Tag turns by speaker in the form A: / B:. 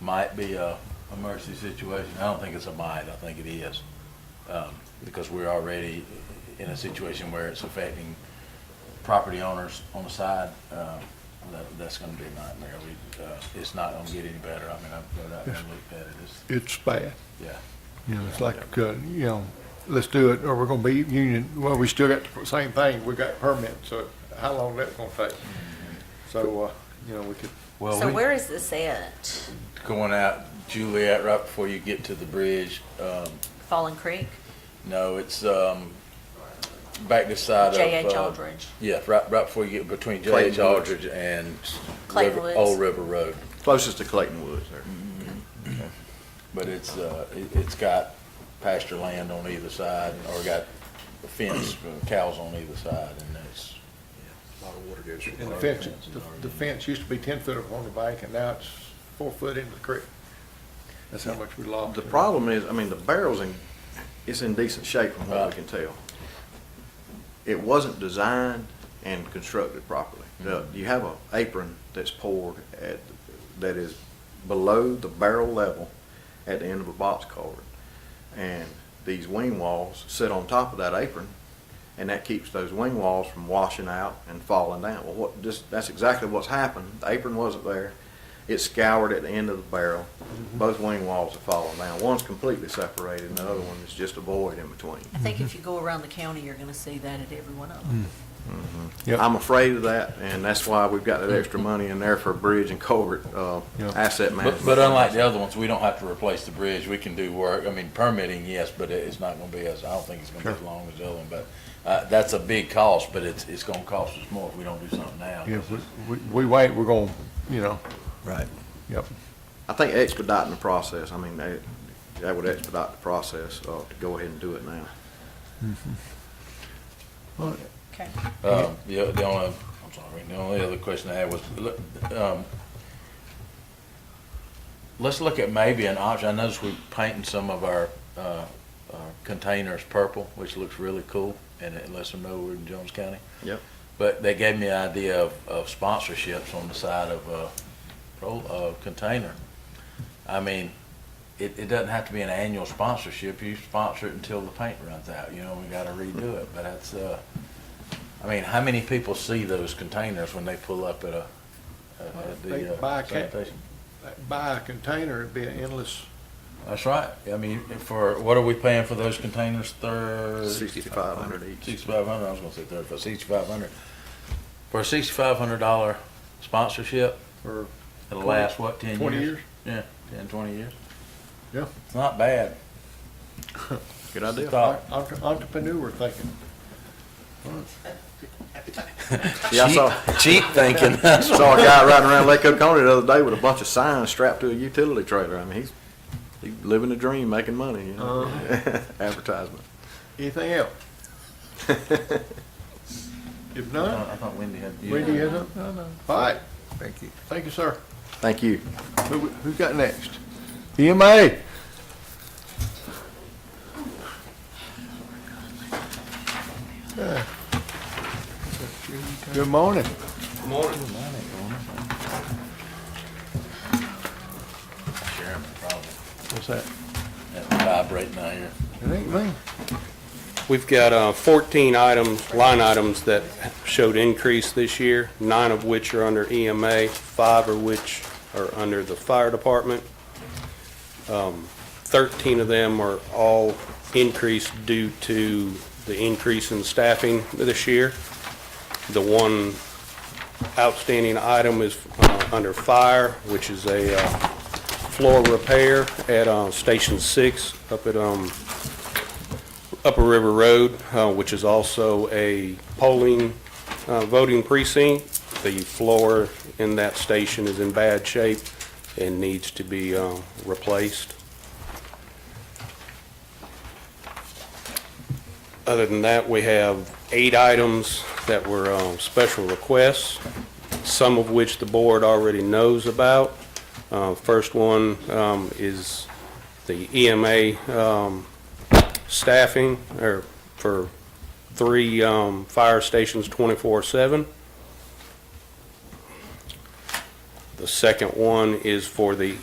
A: might be a emergency situation. I don't think it's a might, I think it is. Um, Because we're already in a situation where it's affecting property owners on the side. um, that- That's gonna be a nightmare. We, uh, It's not gonna get any better. I mean, I've, I've looked at it, it's,
B: It's bad.
A: yeah.
B: You know, it's like, uh, you know, let's do it, or we're gonna be union, well, we still got the same thing, we got permit, so how long that's gonna take? So, uh, you know, we could,
A: Well,
C: So
A: we-
C: where is this at?
A: Going out Juliet right before you get to the bridge. Um,
C: Fallen Creek?
A: No, it's um, back this side of.
C: J.H.
A: uh,
C: Aldridge.
A: Yeah, right, right before you get between
D: Clayton
A: J.H.
D: Woods.
A: Aldridge and
C: Clayton
A: River-
C: Woods.
A: Old River Road.
D: Closest to Clayton Woods there.
A: Mm. But it's, uh, it- it's got pasture land on either side, or got a fence, for cows on either side, and it's. A lot of water goes.
B: and the fence, the- the fence used to be ten foot up on the bank, and now it's four foot into the creek. That's how much we lost.
D: Uh, The problem is, I mean, the barrel's in, it's in decent shape from what we can tell. It wasn't designed and constructed properly. Now, You have an apron that's poured at, that is below the barrel level at the end of a box culvert. And these wing walls sit on top of that apron, and that keeps those wing walls from washing out and falling down. Well, what, just, that's exactly what's happened. The apron wasn't there. It scoured at the end of the barrel. Both wing walls have fallen down. One's completely separated, and the other one is just a void in between.
C: I think if you go around the county, you're gonna see that at every one of them.
B: Yep.
D: I'm afraid of that, and that's why we've got that extra money in there for bridge and culvert, uh,
B: Yeah.
D: asset management.
A: But, but unlike the other ones, we don't have to replace the bridge, we can do work, I mean, permitting, yes, but it- it's not gonna be as, I don't think it's gonna be as long as the other one, but, uh, that's a big cost, but it's, it's gonna cost us more if we don't do something now.
B: Yeah, if we, we- we wait, we're gonna, you know,
A: Right.
B: yep,
D: I think expediting the process, I mean, that, that would expedite the process, uh, to go ahead and do it now.
C: Okay.
A: Um, the, o- the only, I'm sorry, the only other question I had was, look, um, let's look at maybe an option, I noticed we painted some of our, uh, our containers purple, which looks really cool, and it lets them know we're in Jones County.
D: Yep.
A: But they gave me the idea of, of sponsorships on the side of a, pro- a container. I mean, it, it doesn't have to be an annual sponsorship. You sponsor it until the paint runs out, you know, we gotta redo it. But that's, uh, I mean, how many people see those containers when they pull up at a, at- at
B: They
A: the
B: buy a
A: uh,
B: ca-
A: sanitation?
B: buy a container, it'd be an endless,
A: That's right. I mean, for, what are we paying for those containers? Thirty?
D: Sixty-five hundred each.
A: Sixty-five hundred, I was gonna say thirty-five, sixty-five hundred. For a sixty-five hundred dollar sponsorship,
B: for
A: it'll last, what, ten years?
B: twenty years.
A: Yeah, ten, twenty years.
B: Yeah.
A: It's not bad.
D: Good idea.
A: Thought-
B: Entre- Entrepreneur thinking.
D: Yeah, I saw,
A: Cheap thinking.
D: saw a guy riding around Lake Oconee the other day with a bunch of signs strapped to a utility trailer. I mean, he's, he's living the dream, making money, you know,
A: Uh-huh.
D: advertisement.
B: Anything else? If not,
A: I thought Wendy had.
B: when do you have up? No, no. All right. Thank you. Thank you, sir.
D: Thank you.
B: Who, who's got next? E EMA. Good morning.
A: Chairman, probably.
B: What's that?
A: That's vibrating out here.
B: It ain't me.
E: We've got uh, 14 items, line items that showed increase this year, nine of which are under EMA, five of which are under the fire department. Um, 13 of them are all increased due to the increase in staffing this year. The one outstanding item is uh, under fire, which is a uh, floor repair at uh, Station 6 up at um, Upper River Road, uh, which is also a polling, uh, voting precinct. The floor in that station is in bad shape and needs to be uh, replaced. Other than that, we have eight items that were um, special requests, some of which the board already knows about. Uh, First one um, is the E EMA um, staffing or for three um, fire stations 24/7. The second one is for the